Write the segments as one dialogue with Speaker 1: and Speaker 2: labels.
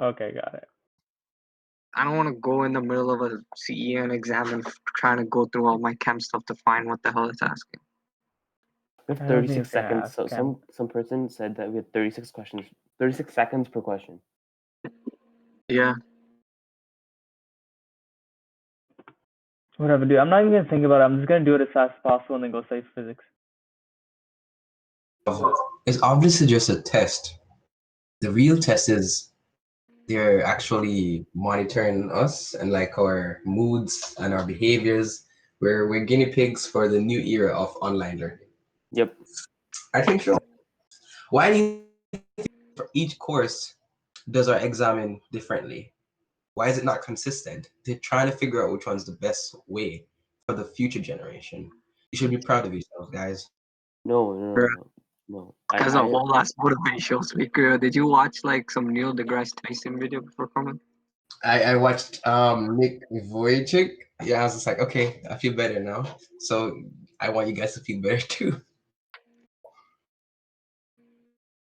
Speaker 1: Okay, got it.
Speaker 2: I don't want to go in the middle of a CEN exam and f- trying to go through all my chem stuff to find what the hell it's asking.
Speaker 3: We have
Speaker 1: I don't think
Speaker 3: 36
Speaker 1: it's gonna
Speaker 3: seconds. So
Speaker 1: ask, yeah.
Speaker 3: some some person said that we had 36 questions, 36 seconds per question.
Speaker 2: Yeah,
Speaker 1: Whatever, dude. I'm not even gonna think about it. I'm just gonna do it as fast as possible and then go study physics.
Speaker 4: It's obviously just a test. The real test is they're actually monitoring us and like our moods and our behaviors. We're we're guinea pigs for the new era of online learning.
Speaker 3: Yep.
Speaker 4: I think so. Why do you think for each course does our examine differently? Why is it not consistent? They're trying to figure out which one's the best way for the future generation. You should be proud of yourself, guys.
Speaker 3: No, no, no,
Speaker 2: Bruh.
Speaker 3: no. no. I-
Speaker 2: as a
Speaker 3: I-
Speaker 2: whole ass motivational speaker. Did you watch like some Neil deGrasse Tyson video before coming?
Speaker 4: I, I watched um Nick Vujicic. Yeah, I was just like, okay, I feel better now. So I want you guys to feel better too.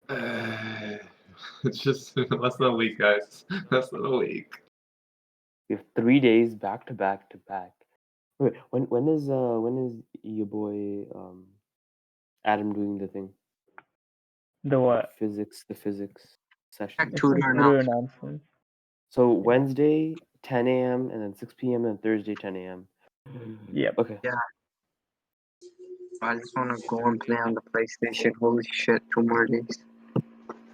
Speaker 5: it's just less than a week, guys. Less than a week.
Speaker 3: We have three days back to back to back. Wait, when when is uh when is your boy um Adam doing the thing?
Speaker 1: The
Speaker 3: The
Speaker 1: what?
Speaker 3: Physics, the physics session.
Speaker 2: Act-
Speaker 1: It's
Speaker 2: Tutor
Speaker 1: like tutor
Speaker 2: announcement.
Speaker 1: announcements.
Speaker 3: So Wednesday, 10 a.m. and then 6 p.m. and Thursday, 10 a.m.
Speaker 1: Yep.
Speaker 3: Okay.
Speaker 2: I just want to go and play on the PlayStation. Holy shit, two more days.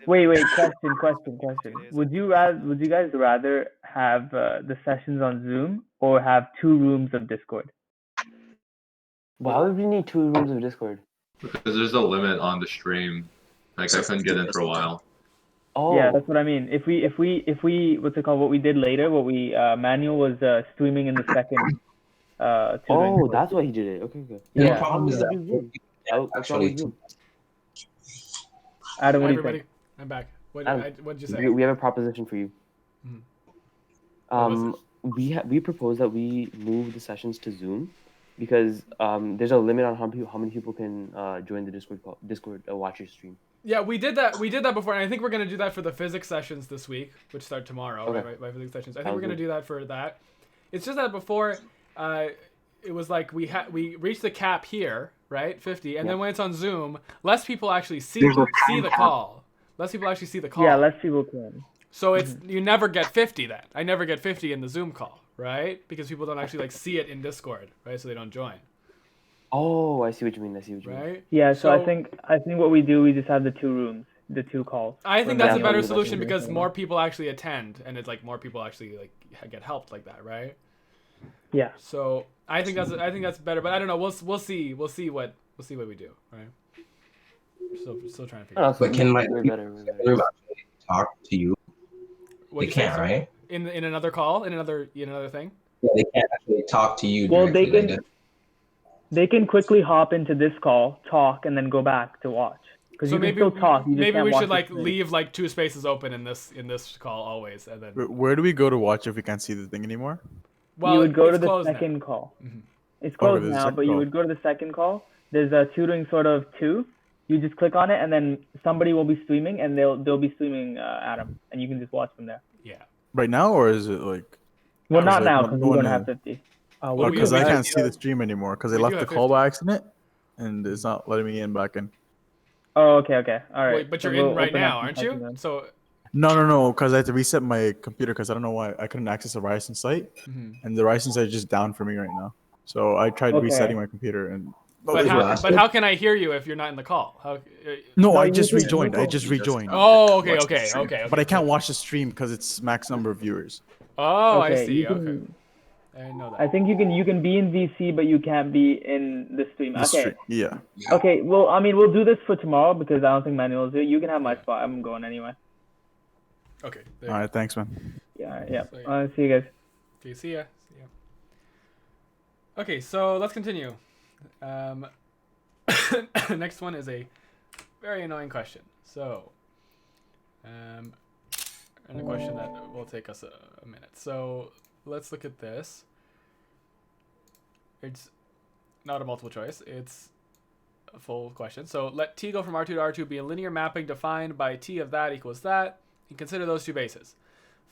Speaker 1: Wait, wait. Question, question, question. Would you rather? Would you guys rather have uh, the sessions on Zoom or have two rooms of Discord?
Speaker 3: Why would we need two rooms of Discord?
Speaker 5: Because there's a limit on the stream. Like I couldn't get in for a while.
Speaker 3: Oh,
Speaker 1: Yeah, that's what I mean. If we, if we, if we, what's it called? What we did later? What we uh, Manuel was uh, streaming in the second. Uh, tutoring
Speaker 3: oh,
Speaker 1: course.
Speaker 3: that's why he did it. Okay, okay.
Speaker 4: The
Speaker 1: yeah.
Speaker 4: problem is
Speaker 3: Yeah.
Speaker 4: that
Speaker 3: Oh,
Speaker 4: Actually,
Speaker 3: actually,
Speaker 1: Adam,
Speaker 6: Hi,
Speaker 1: what do you think?
Speaker 6: everybody. I'm back. What
Speaker 3: Adam,
Speaker 6: I, what did you say?
Speaker 3: we, we have a proposition for you.
Speaker 6: Mhm. What was
Speaker 3: Um, we ha- we propose that we move the sessions to Zoom because um, there's a limit on how, pe- how many people can uh, join the Discord call- Discord uh, watch your stream.
Speaker 6: Yeah, we did that. We did that before, and I think we're gonna do that for the physics sessions this week, which start tomorrow.
Speaker 3: Okay.
Speaker 6: Right, right, my physics sessions. I think
Speaker 3: Sounds
Speaker 6: we're gonna
Speaker 3: good.
Speaker 6: do that for that. It's just that before, uh, it was like we had we reached the cap here, right, fifty, and then when it's on Zoom, less people actually see
Speaker 2: There's a
Speaker 6: see
Speaker 2: time
Speaker 6: the
Speaker 2: cap.
Speaker 6: call. Less people actually see the call.
Speaker 1: Yeah, less people can.
Speaker 6: So it's you never get 50 then. I never get 50 in the Zoom call, right? Because people don't actually like see it in Discord, right? So they don't join,
Speaker 3: Oh, I see what you mean. I see what you mean.
Speaker 6: right?
Speaker 1: Yeah, so, I
Speaker 6: So-
Speaker 1: think I think what we do, we just have the two rooms, the two calls.
Speaker 6: I think
Speaker 3: Yeah,
Speaker 6: that's a
Speaker 3: yeah,
Speaker 6: better
Speaker 3: yeah,
Speaker 6: solution
Speaker 3: definitely,
Speaker 6: because
Speaker 3: definitely.
Speaker 6: more people actually attend and it's like more people actually like get helped like that, right?
Speaker 1: Yeah.
Speaker 6: So I think that's I think that's better, but I don't know. We'll we'll see. We'll see what we'll see what we do, right? Still still
Speaker 1: Uh,
Speaker 6: trying to figure. out.
Speaker 3: Oh,
Speaker 4: But can, like,
Speaker 3: we're
Speaker 4: you-
Speaker 3: better, we're better.
Speaker 4: everybody talk to you. they
Speaker 6: What'd you say,
Speaker 4: can't,
Speaker 6: sorry?
Speaker 4: right?
Speaker 6: In in another call, in another in another thing.
Speaker 4: Yeah, they can't actually talk to you.
Speaker 1: Well, they
Speaker 4: directly like
Speaker 1: can-
Speaker 4: that.
Speaker 1: They can quickly hop into this call, talk, and then go back to watch. Because
Speaker 6: So
Speaker 1: you
Speaker 6: maybe
Speaker 1: can still talk. You just
Speaker 6: maybe
Speaker 1: can't
Speaker 6: we
Speaker 1: watch
Speaker 6: should
Speaker 1: the
Speaker 6: like
Speaker 1: screen.
Speaker 6: leave like two spaces open in this in this call always, and then
Speaker 7: Where, where do we go to watch if we can't see the thing anymore?
Speaker 6: well
Speaker 1: you would go
Speaker 6: it's
Speaker 1: to the
Speaker 6: closed now.
Speaker 1: second call.
Speaker 6: Mhm.
Speaker 1: It's
Speaker 7: Oh,
Speaker 1: closed
Speaker 7: there's a
Speaker 1: now,
Speaker 7: second
Speaker 1: but you
Speaker 7: call.
Speaker 1: would go to the second call. There's a tutoring sort of two. You just click on it, and then somebody will be streaming, and they'll they'll be streaming uh, Adam, and you can just watch from there.
Speaker 6: Yeah.
Speaker 7: Right now, or is it like?
Speaker 1: Well, not
Speaker 6: Adam's
Speaker 7: like,
Speaker 1: now
Speaker 7: "I'm
Speaker 1: because we
Speaker 7: going
Speaker 1: don't
Speaker 7: in."
Speaker 1: have fifty. Uh,
Speaker 6: Well,
Speaker 1: what
Speaker 6: we
Speaker 1: we
Speaker 7: Because
Speaker 1: would
Speaker 7: I
Speaker 6: have-
Speaker 7: can't see the stream anymore because they
Speaker 6: we do
Speaker 7: left the
Speaker 6: have
Speaker 7: call by accident, and it's not letting me in back in.
Speaker 1: Oh, okay, okay, all right.
Speaker 6: Wait, but
Speaker 1: So
Speaker 6: you're
Speaker 1: we'll
Speaker 6: in right
Speaker 1: open up
Speaker 6: now,
Speaker 1: and
Speaker 6: aren't
Speaker 1: type
Speaker 6: you?
Speaker 1: in then.
Speaker 6: So
Speaker 7: No, no, no, because I had to reset my computer because I don't know why I couldn't access the Ryerson site,
Speaker 6: mm-hmm.
Speaker 7: and the Ryerson site is just down for me right now. So I tried
Speaker 1: Okay.
Speaker 7: resetting my computer, and
Speaker 6: but,
Speaker 4: Nobody's
Speaker 6: how,
Speaker 4: watching.
Speaker 6: but how can I hear you if you're not in the call? How, uh,
Speaker 7: no,
Speaker 1: No,
Speaker 7: I
Speaker 1: you
Speaker 7: just
Speaker 1: just
Speaker 7: rejoined. I
Speaker 4: Google.
Speaker 7: just
Speaker 4: You just-
Speaker 7: rejoined,
Speaker 6: oh, okay,
Speaker 4: Watch the
Speaker 6: okay,
Speaker 4: stream.
Speaker 6: okay, okay.
Speaker 7: but I can't watch the stream because it's max number of viewers.
Speaker 6: Oh,
Speaker 1: okay,
Speaker 6: I
Speaker 1: you
Speaker 6: see.
Speaker 1: can-
Speaker 6: Okay, I didn't know that.
Speaker 1: I think you can you can be in VC, but you can't be in the stream.
Speaker 7: The
Speaker 1: okay.
Speaker 7: stream- yeah.
Speaker 1: Okay. Well, I mean, we'll do this for tomorrow because I don't think Manuel's here. You can have my spot. I'm going anyway.
Speaker 6: okay, there.
Speaker 7: All right, thanks, man.
Speaker 1: Yeah. all right, Yeah.
Speaker 6: So, yeah.
Speaker 1: Uh, see you guys.
Speaker 6: Okay, see ya. See ya. Okay, so let's continue. Um, next one is a very annoying question. So, um, and a question that will take us a, a minute. So let's look at this. It's not a multiple choice. It's a full question. So let T go from R2 to R2 be a linear mapping defined by T of that equals that, and consider those two bases.